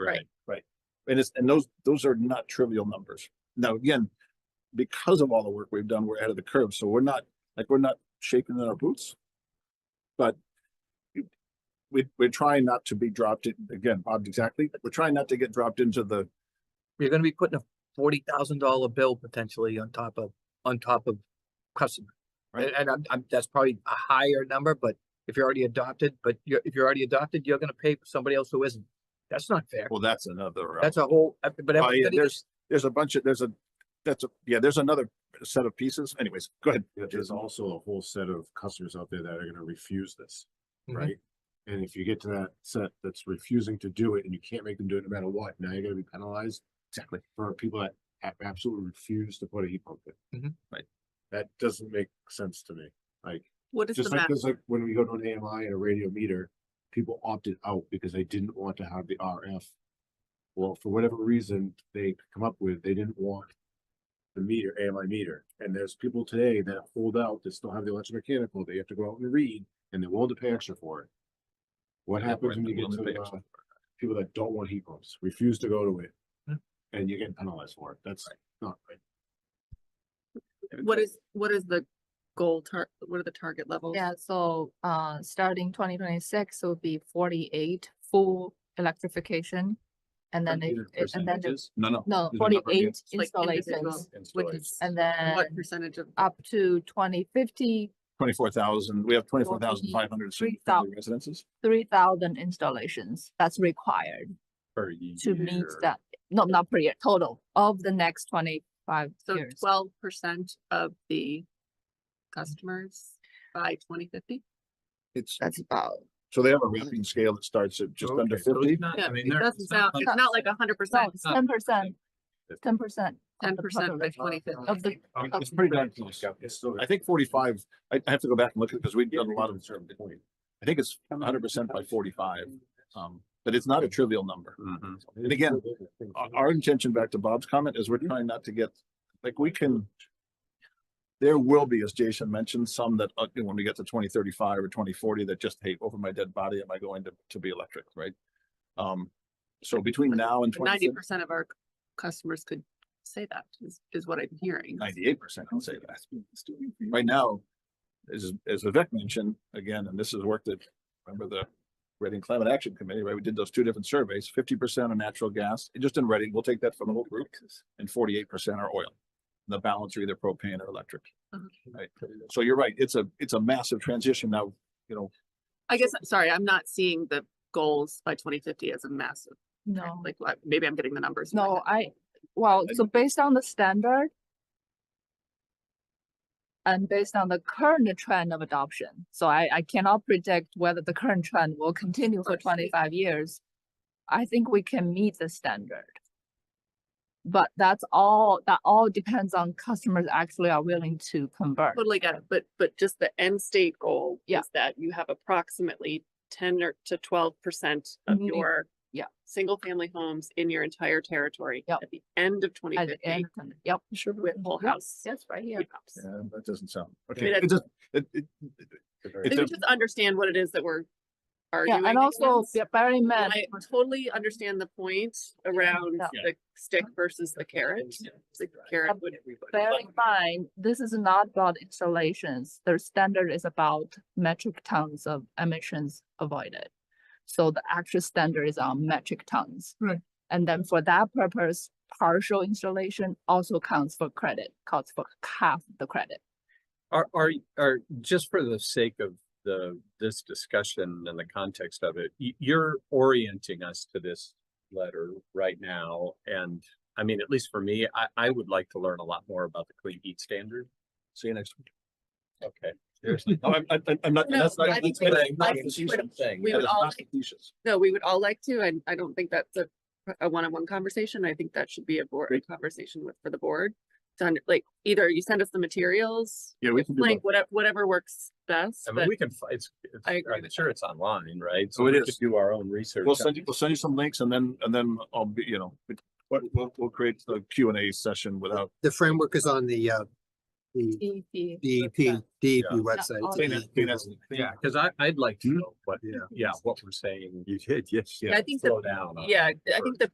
Right. Right. And it's, and those, those are not trivial numbers. Now, again, because of all the work we've done, we're ahead of the curve. So we're not, like, we're not shaking in our boots. But it- we, we're trying not to be dropped in, again, Bob, exactly. We're trying not to get dropped into the, You're gonna be putting a forty thousand dollar bill potentially on top of, on top of customer. Right. And, and I'm, I'm, that's probably a higher number, but if you're already adopted, but you're, if you're already adopted, you're gonna pay for somebody else who isn't. That's not fair. well, that's another. uh, That's a whole, uh, but Oh, yeah, everybody- there's, there's a bunch of, there's a, that's a, yeah, there's another set of pieces. Anyways, go ahead. Yeah, there's also a whole set of customers out there that are gonna refuse this, Mhm. right? And if you get to that set that's refusing to do it and you can't make them do it no matter what, now you're gonna be penalized Exactly. for people that a- absolutely refuse to put a heat pump in. Mhm. Right. That doesn't make sense to me, like, What is the just like, max? just like when we go to an AMI and a radio meter, people opted out because they didn't want to have the RF. Well, for whatever reason they come up with, they didn't want the meter, AMI meter. And there's people today that hold out, that still have the electromechanical, they have to go out and read, and they're willing to pay extra for it. What Yeah, happens right, when they're you get willing to pay to, uh, extra people that don't want heat pumps, refuse to go to it? Hmm. Yeah. And you get penalized for it, that's not right. What is, what is the goal tar, what are the target levels? Yeah, so uh, starting twenty twenty-six will be forty-eight full electrification. And then it, it- and then, the- No, no. no, These are number- yeah, forty-eight Like individual installations, Which installation. is and then What percentage of? up to twenty fifty, Twenty-four thousand, we have twenty-four thousand five hundred 43,000. residences three thousand installations. That's required per year. to meet that, no, not per year, total of the next twenty-five So years. twelve percent of the customers by twenty fifty? It's, That's about, so they have a rating scale that starts at just under Okay, so it's fifty. not- I Yeah, mean, it there- doesn't it's sound, not it's hundred not like a hundred no, percent, it's ten percent, ten percent. ten percent by twenty fifty. Of the, I mean, of- It's pretty darn close. It's still. I think forty-five, I, I have to go back and look at it because we've Yeah, done a lot of, certain point. I think it's hundred percent by forty-five. Um, but it's not a trivial number. Mm-hmm. And again, our, our intention, back to Bob's comment, is we're trying not to get, like, we can. There will be, as Jason mentioned, some that, uh, when we get to twenty thirty-five or twenty forty, that just, hey, over my dead body, am I going to, to be electric, right? Um, so between now and Ninety 2030 percent of our customers could say that is, is what I'm hearing. 98 percent can say that. Right now, as, as Vivek mentioned, again, and this is work that, remember the Reading Climate Action Committee, right? We did those two different surveys, fifty percent on natural gas, just in Reading, we'll take that from the whole group, and forty-eight percent are oil. The balance are either propane or electric. Mhm. Right, so you're right, it's a, it's a massive transition now, you know, I guess, I'm sorry, I'm not seeing the goals by twenty fifty as a massive, no. like, I- maybe I'm getting the numbers. in my No, head. I, well, I so based on the standard and based on the current trend of adoption, so I, I cannot predict whether the current trend will continue for course. twenty-five years. I think we can meet the standard. But that's all, that all depends on customers actually are willing to convert. Totally get it, but, but just the end state goal Yeah. is that you have approximately ten or to twelve percent of Community- your yeah. single-family homes in your entire territory Yep. at the end of twenty At the fifty end, yep. with whole Yep, house. Yes, right here. heat pumps. yeah, that doesn't sound, okay, mean, it just, it, it, It's Maybe a- just understand what it is that we're Yeah, arguing. and also against. be- bear in mind, I totally understand the point around Yeah. the stick versus the carrot. The carrot would. Bear in mind, this is not about installations. Their standard is about metric tons of emissions avoided. So the actual standard is on metric tons. Right. And then for that purpose, partial installation also counts for credit, counts for half the credit. Are, are, are, just for the sake of the, this discussion and the context of it, y- you're orienting us to this letter right now. And I mean, at least for me, I, I would like to learn a lot more about the clean heat standard. see you next week. Okay. Seriously, No, I'm, I'm, I'm not, No, that's not. I think that's we not- would- not I think we would- facetious saying, we that would is all not like- facetious. No, we would all like to, and I don't think that's a, a one-on-one conversation. I think that should be a board, a conversation with, for the board. To under like, either you send us the materials, Yeah, we can do like, that. whatever, whatever works best, I mean, but we can, fi- it's, it's- I agree I'm with sure it's online, right? Oh, it we is. could Do our own research. We'll on send you, we'll send you some links and then, and then I'll be, you know, we- we'll, we'll, we'll create the Q and A session without, the framework is on the uh the DEP. DEP, E website. DEP Yeah. website. Clean DEP. Yeah, cause I, I'd like to Hmm? know what, yeah, what we're saying. You did, yes. I think the- Slow down. on. Yeah, I think the